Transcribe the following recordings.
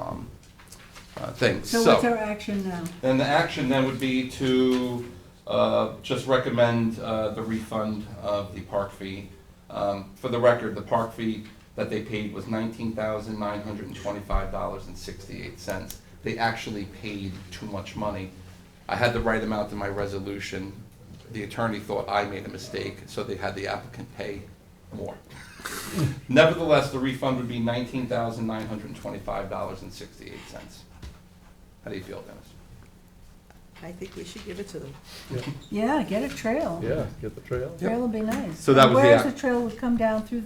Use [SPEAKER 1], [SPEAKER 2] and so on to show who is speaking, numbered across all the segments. [SPEAKER 1] um, uh, thing.
[SPEAKER 2] So what's our action now?
[SPEAKER 1] And the action then would be to uh, just recommend uh, the refund of the park fee. Um, For the record, the park fee that they paid was nineteen thousand nine hundred and twenty-five dollars and sixty-eight cents. They actually paid too much money. I had the right amount in my resolution. The attorney thought I made a mistake, so they had the applicant pay more. Nevertheless, the refund would be nineteen thousand nine hundred and twenty-five dollars and sixty-eight cents. How do you feel, Dennis?
[SPEAKER 3] I think we should give it to them.
[SPEAKER 2] Yeah, get a trail.
[SPEAKER 4] Yeah, get the trail.
[SPEAKER 2] Trail would be nice.
[SPEAKER 1] So that
[SPEAKER 2] And
[SPEAKER 1] was the
[SPEAKER 2] Where's
[SPEAKER 1] ac-
[SPEAKER 2] the trail would come down through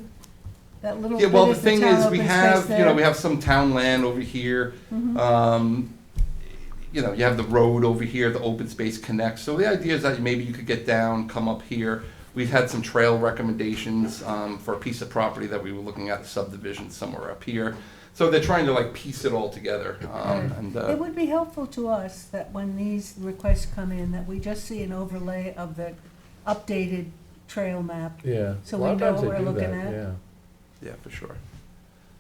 [SPEAKER 2] that little
[SPEAKER 1] Yeah,
[SPEAKER 2] bit
[SPEAKER 1] well, the
[SPEAKER 2] of the
[SPEAKER 1] thing
[SPEAKER 2] town
[SPEAKER 1] is, we
[SPEAKER 2] open
[SPEAKER 1] have,
[SPEAKER 2] space
[SPEAKER 1] you know, we
[SPEAKER 2] there?
[SPEAKER 1] have some town land over here.
[SPEAKER 2] Mhm.
[SPEAKER 1] Um, you know, you have the road over here, the open space connects. So the idea is that maybe you could get down, come up here. We've had some trail recommendations, um, for a piece of property that we were looking at subdivision somewhere up here. So they're trying to like piece it all together, um,
[SPEAKER 2] Right.
[SPEAKER 1] and,
[SPEAKER 2] It
[SPEAKER 1] uh,
[SPEAKER 2] would be helpful to us that when these requests come in, that we just see an overlay of the updated trail map.
[SPEAKER 4] Yeah.
[SPEAKER 2] So
[SPEAKER 4] A
[SPEAKER 2] we
[SPEAKER 4] lot of
[SPEAKER 2] know
[SPEAKER 4] times
[SPEAKER 2] what
[SPEAKER 4] they
[SPEAKER 2] we're
[SPEAKER 4] do
[SPEAKER 2] looking
[SPEAKER 4] that,
[SPEAKER 2] at?
[SPEAKER 4] Yeah.
[SPEAKER 1] yeah, for sure.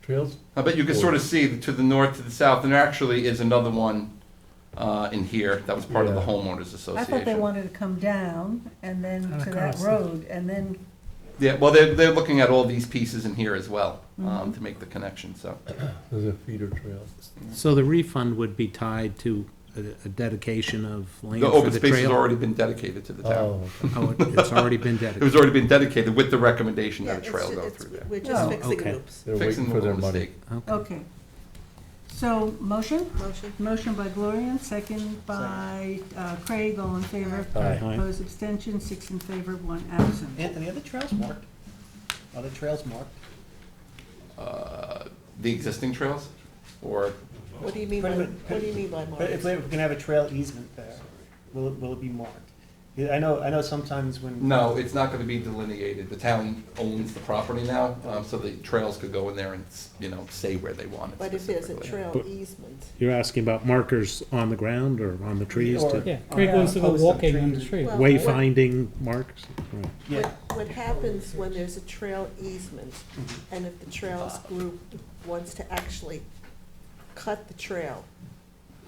[SPEAKER 4] Trails,
[SPEAKER 1] I bet you can sort of see to the north, to the south, and there actually is another one, uh, in here that was part of the
[SPEAKER 4] Yeah.
[SPEAKER 1] homeowners association.
[SPEAKER 2] I thought they wanted to come down and then
[SPEAKER 5] And
[SPEAKER 2] to that
[SPEAKER 5] across the-
[SPEAKER 2] road, and then,
[SPEAKER 1] Yeah, well, they're, they're looking at all these pieces in here as well,
[SPEAKER 3] Mm-hmm.
[SPEAKER 1] um,
[SPEAKER 2] Mhm.
[SPEAKER 1] to make the connection, so.
[SPEAKER 4] there's a feeder trail.
[SPEAKER 5] So the refund would be tied to a a dedication of land
[SPEAKER 1] The
[SPEAKER 5] for
[SPEAKER 1] open
[SPEAKER 5] the
[SPEAKER 1] space has
[SPEAKER 5] trail?
[SPEAKER 1] already been dedicated to the town.
[SPEAKER 4] Oh, okay.
[SPEAKER 5] Oh, it- it's already been
[SPEAKER 1] It was
[SPEAKER 5] dedicated.
[SPEAKER 1] already been dedicated with the recommendation
[SPEAKER 3] Yeah,
[SPEAKER 1] that a
[SPEAKER 3] it's
[SPEAKER 1] trail
[SPEAKER 3] ju-
[SPEAKER 1] go
[SPEAKER 3] it's-
[SPEAKER 1] through there.
[SPEAKER 3] We're
[SPEAKER 2] Oh,
[SPEAKER 3] just fixing
[SPEAKER 5] okay.
[SPEAKER 3] loops.
[SPEAKER 4] They're
[SPEAKER 1] Fixing
[SPEAKER 4] waiting
[SPEAKER 1] the
[SPEAKER 4] for their
[SPEAKER 1] little
[SPEAKER 4] money.
[SPEAKER 1] mistake.
[SPEAKER 5] Okay.
[SPEAKER 2] okay. So, motion?
[SPEAKER 3] Motion?
[SPEAKER 2] Motion by Gloria, second by uh, Craig, all in favor.
[SPEAKER 4] Aye.
[SPEAKER 5] Aye.
[SPEAKER 2] Opposed, abstention, six in favor, one absent.
[SPEAKER 6] Anthony, are the trails marked? Are the trails marked?
[SPEAKER 1] Uh, The existing trails, or,
[SPEAKER 3] What do you mean by,
[SPEAKER 6] Wait a minute.
[SPEAKER 3] what do you mean by
[SPEAKER 6] But if
[SPEAKER 3] marks?
[SPEAKER 6] we're gonna have a trail easement there, will it, will it be marked? Yeah, I know, I know sometimes when.
[SPEAKER 1] no, it's not gonna be delineated. The town owns the property now, um, so the trails could go in there and, s- you know, say where they want it
[SPEAKER 3] But if there's a
[SPEAKER 1] specifically.
[SPEAKER 3] trail
[SPEAKER 5] But-
[SPEAKER 3] easement,
[SPEAKER 5] You're asking about markers on the ground or on the trees
[SPEAKER 6] or-
[SPEAKER 5] to
[SPEAKER 7] Yeah, Craig
[SPEAKER 6] or
[SPEAKER 7] wants to go
[SPEAKER 6] posts on
[SPEAKER 7] walking on the
[SPEAKER 6] trees.
[SPEAKER 7] street.
[SPEAKER 3] Well-
[SPEAKER 5] wayfinding marks? Right.
[SPEAKER 6] Yeah,
[SPEAKER 3] what, what happens when there's a trail easement,
[SPEAKER 6] mhm,
[SPEAKER 3] and if the trails group wants to actually cut the trail,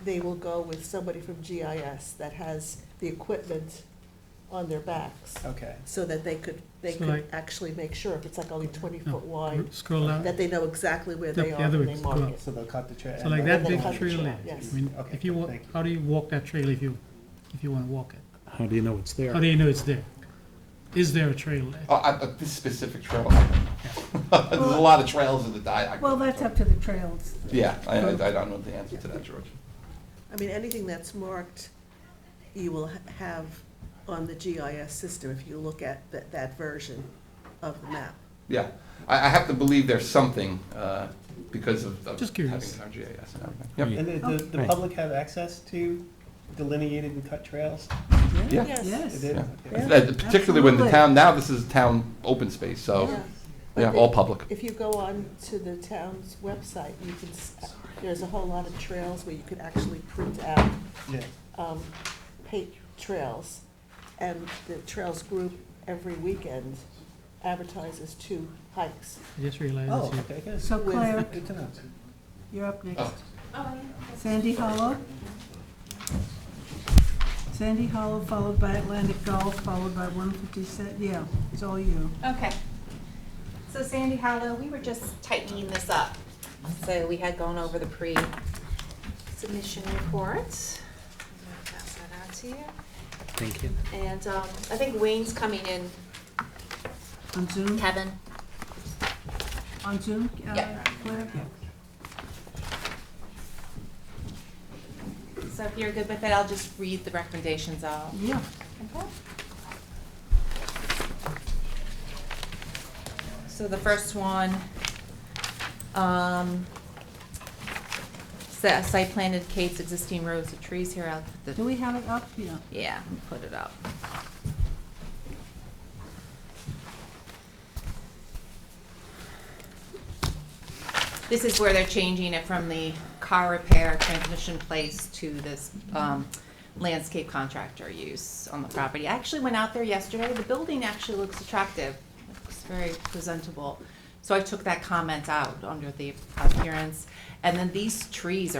[SPEAKER 3] they will go with somebody from GIS that has the equipment on their backs,
[SPEAKER 6] okay.
[SPEAKER 3] so that they could, they
[SPEAKER 7] So
[SPEAKER 3] could
[SPEAKER 7] like-
[SPEAKER 3] actually make sure, if it's like only twenty
[SPEAKER 6] Oh,
[SPEAKER 7] No.
[SPEAKER 3] foot wide,
[SPEAKER 7] Scroll down,
[SPEAKER 3] that they know exactly where they
[SPEAKER 7] Yep,
[SPEAKER 3] are
[SPEAKER 7] the other
[SPEAKER 3] when
[SPEAKER 7] way,
[SPEAKER 3] they mark
[SPEAKER 7] go
[SPEAKER 3] it.
[SPEAKER 6] So they'll cut the trail.
[SPEAKER 7] so like that
[SPEAKER 3] Then
[SPEAKER 7] big
[SPEAKER 3] cut the
[SPEAKER 7] trail
[SPEAKER 3] trail,
[SPEAKER 7] there. I
[SPEAKER 3] yes.
[SPEAKER 7] mean,
[SPEAKER 6] Okay,
[SPEAKER 7] if you, wa-
[SPEAKER 6] thank you.
[SPEAKER 7] how do you walk that trail if you, if you wanna walk it?
[SPEAKER 5] How do you know it's
[SPEAKER 7] How do
[SPEAKER 5] there?
[SPEAKER 7] you know it's there? Is there a trail there?
[SPEAKER 1] Oh, I, I- this specific trail, I don't know. there's a lot of trails in the diagram.
[SPEAKER 2] Well, that's up to the trails.
[SPEAKER 1] Yeah, I, I I don't know the answer to that, George.
[SPEAKER 3] I mean, anything that's marked, you will ha- have on the GIS system if you look at that, that version of the map.
[SPEAKER 1] Yeah, I, I have to believe there's something, uh, because of, of
[SPEAKER 7] Just
[SPEAKER 1] having our
[SPEAKER 7] curious.
[SPEAKER 1] GIS and everything.
[SPEAKER 5] Yeah.
[SPEAKER 1] Yep,
[SPEAKER 6] And the, the, the
[SPEAKER 5] Right.
[SPEAKER 6] public have access to delineated and cut trails?
[SPEAKER 1] yeah.
[SPEAKER 3] Yes.
[SPEAKER 6] They
[SPEAKER 2] Yes.
[SPEAKER 6] do?
[SPEAKER 1] Yeah.
[SPEAKER 6] Okay.
[SPEAKER 1] Uh, Particularly when the
[SPEAKER 2] absolutely.
[SPEAKER 1] town, now this is town open space, so,
[SPEAKER 3] Yeah. But
[SPEAKER 1] yeah,
[SPEAKER 3] the-
[SPEAKER 1] all public.
[SPEAKER 3] If you go on to the town's website, you can, s- there's a whole lot of trails where you could actually print out,
[SPEAKER 6] Yeah,
[SPEAKER 3] um, paint trails. And the trails group every weekend advertises two hikes.
[SPEAKER 7] I just realized.
[SPEAKER 6] oh,
[SPEAKER 7] you-
[SPEAKER 6] okay, good.
[SPEAKER 2] So Claire,
[SPEAKER 6] Good to know.
[SPEAKER 2] you're up next.
[SPEAKER 1] Oh.
[SPEAKER 2] Sandy Hollow. Sandy Hollow, followed by Atlantic Gulf, followed by 157, yeah, it's all you.
[SPEAKER 8] Okay. So Sandy Hollow, we were just tightening this up. So we had gone over the pre-submission report. I'm gonna Pass that out to you.
[SPEAKER 5] Thank you.
[SPEAKER 8] And um, I think Wayne's coming in,
[SPEAKER 2] On Zoom,
[SPEAKER 8] Kevin.
[SPEAKER 2] on Zoom, uh,
[SPEAKER 8] Yeah.
[SPEAKER 2] Claire?
[SPEAKER 8] So if you're good with it, I'll just read the recommendations out.
[SPEAKER 2] Yeah.
[SPEAKER 8] So the first one, um, sa- site plan indicates existing rows of trees here. I'll put the
[SPEAKER 2] Do we have it up? Yeah.
[SPEAKER 8] yeah, and put it up. This is where they're changing it from the car repair transmission place to this um, landscape contractor use on the property. I actually went out there yesterday. The building actually looks attractive. It Looks very presentable. So I took that comment out under the appearance. And then these trees are.